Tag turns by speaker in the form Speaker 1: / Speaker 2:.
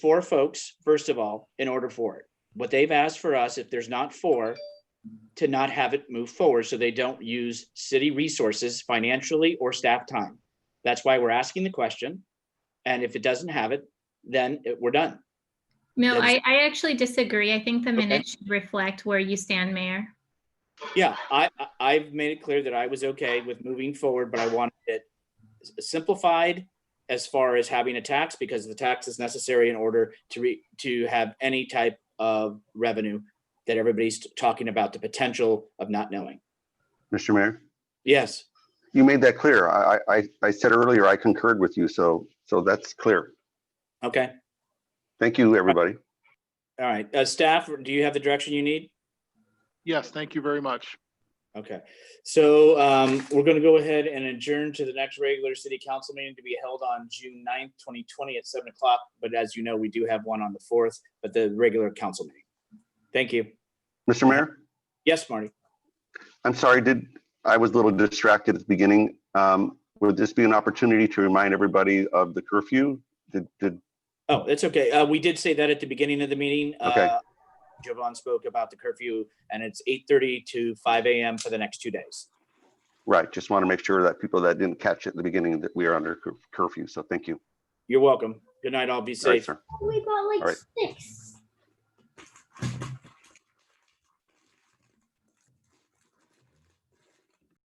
Speaker 1: four folks, first of all, in order for it. What they've asked for us, if there's not four, to not have it move forward so they don't use city resources financially or staff time. That's why we're asking the question. And if it doesn't have it, then it- we're done.
Speaker 2: No,
Speaker 1: That's-
Speaker 2: I, I actually disagree. I think the
Speaker 1: Okay.
Speaker 2: minutes should reflect where you stand, Mayor.
Speaker 1: Yeah, I, I- I've made it clear that I was okay with moving forward, but I wanted it s- simplified as far as having a tax, because the tax is necessary in order to re, to have any type of revenue that everybody's t- talking about, the potential of not knowing.
Speaker 3: Mr. Mayor,
Speaker 1: Yes,
Speaker 3: you made that clear. I, I- I, I said earlier, I concurred with you, so, so that's clear.
Speaker 1: okay,
Speaker 3: Thank you, everybody.
Speaker 1: all right. Uh, staff, do you have the direction you need?
Speaker 4: Yes, thank you very much.
Speaker 1: Okay, so um, we're gonna go ahead and adjourn to the next regular city council meeting to be held on June 9th, twenty twenty at seven o'clock. But as you know, we do have one on the fourth, but the regular council meeting. Thank you.
Speaker 3: Mr. Mayor,
Speaker 1: Yes, Marty.
Speaker 3: I'm sorry, did, I was a little distracted at the beginning. Um, Would this be an opportunity to remind everybody of the curfew? Did, did,
Speaker 1: Oh, that's okay. Uh, we did say that at the beginning of the meeting.
Speaker 3: Okay.
Speaker 1: Uh, Jovan spoke about the curfew and it's eight thirty to five AM for the next two days.
Speaker 3: right, just want to make sure that people that didn't catch it at the beginning that we are under cur- curfew, so thank you.
Speaker 1: You're welcome. Good night. All be
Speaker 3: All right,
Speaker 1: safe.
Speaker 3: sir.
Speaker 5: Oh, We got
Speaker 3: All
Speaker 5: like
Speaker 3: right.
Speaker 5: six.